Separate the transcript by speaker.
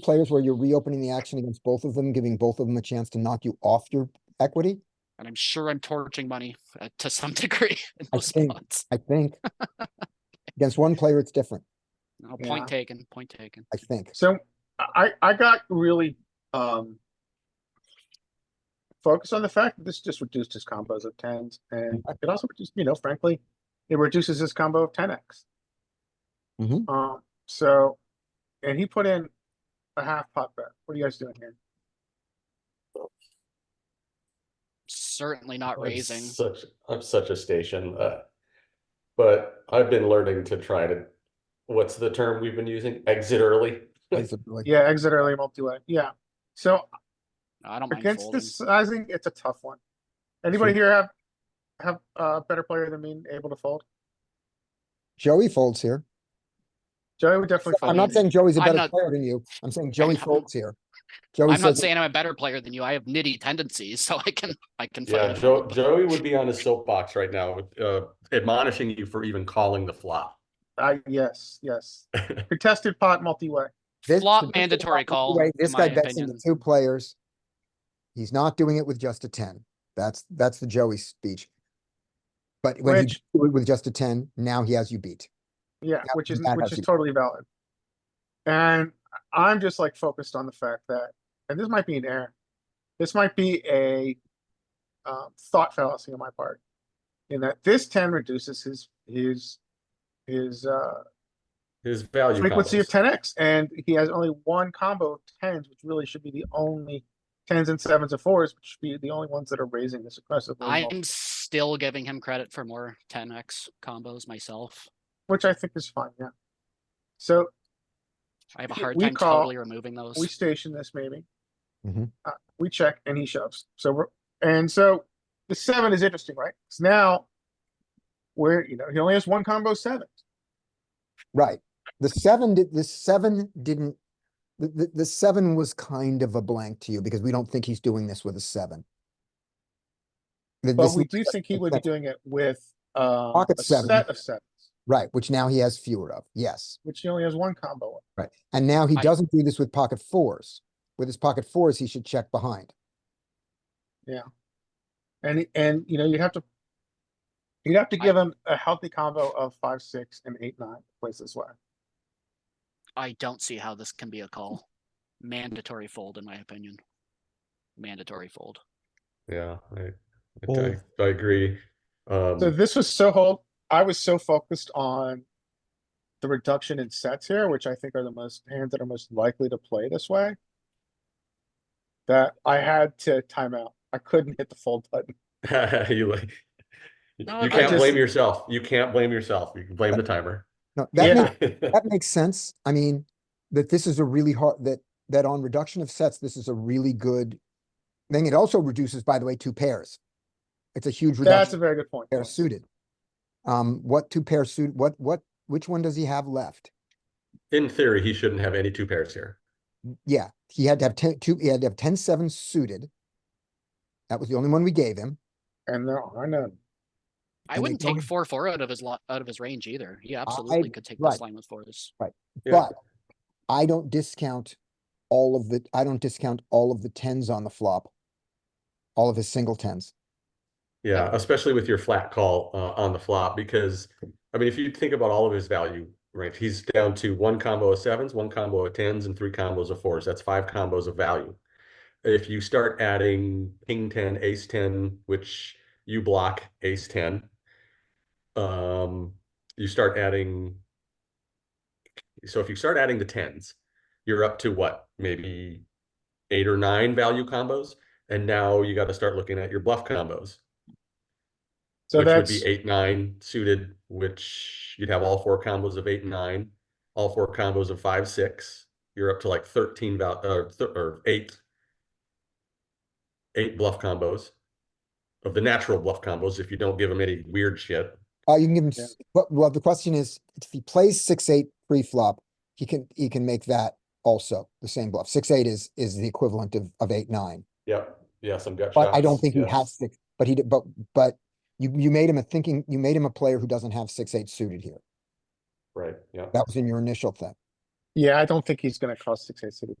Speaker 1: players where you're reopening the action against both of them, giving both of them a chance to knock you off your equity?
Speaker 2: and I'm sure I'm torching money uh, to some degree in
Speaker 1: I
Speaker 2: those
Speaker 1: think-
Speaker 2: spots.
Speaker 1: I think. Against one player, it's different,
Speaker 2: No, point
Speaker 3: Yeah.
Speaker 2: taken, point taken.
Speaker 1: I think.
Speaker 3: So I, I got really, um. Focused on the fact that this just reduced his combos of tens and it also reduced, you know, frankly, it reduces his combo of ten X.
Speaker 1: Mhm.
Speaker 3: Um, so, and he put in a half pot bet. What are you guys doing here?
Speaker 2: Certainly not
Speaker 4: I'm
Speaker 2: raising.
Speaker 4: Such, I'm such a station, uh, but I've been learning to try to, what's the term we've been using? Exit early?
Speaker 1: It's a- like,
Speaker 3: Yeah, exit early multi-way. Yeah. So
Speaker 2: I don't mind
Speaker 3: against
Speaker 2: folding.
Speaker 3: this sizing, it's a tough one. Anybody here have, have a better player than me and able to fold?
Speaker 1: Joey folds here.
Speaker 3: Joey would definitely fold.
Speaker 1: I'm not saying Joey's a
Speaker 2: I'm
Speaker 1: better
Speaker 2: not-
Speaker 1: player than you. I'm saying Joey
Speaker 2: not-
Speaker 1: folds here. Joey
Speaker 2: I'm not
Speaker 1: says,
Speaker 2: saying I'm a better player than you. I have nitty tendencies, so I can, I can
Speaker 4: Yeah,
Speaker 2: fight. it.
Speaker 4: Joe, Joey would be on his soapbox right now, uh, admonishing you for even calling the flop.
Speaker 3: Uh, yes, yes. Contested pot multi-way.
Speaker 1: this.
Speaker 2: Flop
Speaker 1: this-
Speaker 2: mandatory call,
Speaker 1: Wait,
Speaker 2: in
Speaker 1: This guy
Speaker 2: my
Speaker 1: bets into
Speaker 2: opinion.
Speaker 1: two players. He's not doing it with just a ten. That's, that's the Joey speech. But when he
Speaker 3: Which-
Speaker 1: did it with just a ten, now he has you beat.
Speaker 3: Yeah,
Speaker 1: Yeah,
Speaker 3: which is
Speaker 1: that
Speaker 3: which
Speaker 1: has
Speaker 3: is
Speaker 1: to be-
Speaker 3: totally valid. And I'm just like focused on the fact that, and this might be an error. This might be a um, thought fallacy on my part, in that this ten reduces his his his uh,
Speaker 4: His value.
Speaker 3: frequency of
Speaker 4: combos.
Speaker 3: ten x, and he has only one combo of tens, which really should be the only tens and sevens and fours, which should be the only ones that are raising this aggressively.
Speaker 2: I'm still giving him credit for more ten X combos myself.
Speaker 3: which I think is fine. Yeah. So
Speaker 2: I have a
Speaker 3: We-
Speaker 2: hard
Speaker 3: we
Speaker 2: time
Speaker 3: call-
Speaker 2: totally removing those.
Speaker 3: we station this maybe.
Speaker 1: Mhm.
Speaker 3: Uh, we check and he shoves. So we're, and so the seven is interesting, right? Because now we're, you know, he only has one combo seven.
Speaker 1: Right. The seven did, the seven didn't, the, the, the seven was kind of a blank to you because we don't think he's doing this with a seven. Th-
Speaker 3: But
Speaker 1: this
Speaker 3: we
Speaker 1: looks
Speaker 3: do
Speaker 1: like
Speaker 3: think he
Speaker 1: a
Speaker 3: would be
Speaker 1: seven.
Speaker 3: doing it with um,
Speaker 1: Pocket
Speaker 3: a
Speaker 1: seven.
Speaker 3: set of sevens,
Speaker 1: Right, which now he has fewer of, yes,
Speaker 3: which he only has one combo of.
Speaker 1: right. And now he
Speaker 2: I-
Speaker 1: doesn't do this with pocket fours. With his pocket fours, he should check behind.
Speaker 3: And, and, you know, you'd have to, you'd have to
Speaker 2: I-
Speaker 3: give him a healthy combo of five, six, and eight, nine plays this way.
Speaker 2: I don't see how this can be a call. Mandatory fold, in my opinion. Mandatory fold.
Speaker 4: Yeah, I, I, I agree.
Speaker 3: So
Speaker 4: Um,
Speaker 3: this was so hold, I was so focused on the reduction in sets here, which I think are the most hands that are most likely to play this way. That I had to time out. I couldn't hit the fold button.
Speaker 4: you like, you
Speaker 2: No, I
Speaker 4: can't
Speaker 3: just-
Speaker 4: blame yourself. You can't blame yourself. You can blame the timer.
Speaker 1: No, that
Speaker 3: Yeah.
Speaker 1: makes, that makes sense. I mean, that this is a really hard, that, that on reduction of sets, this is a really good thing. It also reduces, by the way, two pairs. It's a huge reduction.
Speaker 3: That's a very good point.
Speaker 1: pair suited. Um, what two pair suit, what, what, which one does he have left?
Speaker 4: In theory, he shouldn't have any two pairs here.
Speaker 1: Yeah, he had to have ten, two, he had to have ten, seven suited. That was the only one we gave him.
Speaker 3: And no, I know.
Speaker 2: I
Speaker 1: And they
Speaker 2: wouldn't
Speaker 1: don't-
Speaker 2: take four, four out of his lot, out of his range either. He absolutely could take
Speaker 1: right.
Speaker 2: this line with fours.
Speaker 4: Yeah.
Speaker 1: But I don't discount all of the, I don't discount all of the tens on the flop. All of his single tens.
Speaker 4: Yeah, especially with your flat call uh, on the flop, because I mean, if you think about all of his value range, he's down to one combo of sevens, one combo of tens, and three combos of fours. That's five combos of value. If you start adding king ten, ace ten, which you block ace ten, um, you start adding. So if you start adding the tens, you're up to what, maybe eight or nine value combos, and now you got to start looking at your bluff combos
Speaker 3: So
Speaker 4: which would
Speaker 3: that's,
Speaker 4: be eight, nine suited, which you'd have all four combos of eight and nine, all four combos of five, six. You're up to like thirteen val, uh, th- or eight, eight bluff combos of the natural bluff combos. If you don't give them any weird shit,
Speaker 1: Uh, you can give him,
Speaker 3: Yeah.
Speaker 1: s- well, well, the question is, if he plays six, eight pre-flop, he can, he can make that also the same bluff. Six, eight is, is the equivalent of, of eight, nine.
Speaker 4: yep, yeah, some gut
Speaker 1: But I don't
Speaker 4: shots,
Speaker 1: think he
Speaker 4: yes.
Speaker 1: has six, but he, did- but, but you, you made him a thinking, you made him a player who doesn't have six, eight suited here.
Speaker 4: Right, yeah.
Speaker 1: That was in your initial thing.
Speaker 3: yeah, I don't think he's gonna cross six, eight suited.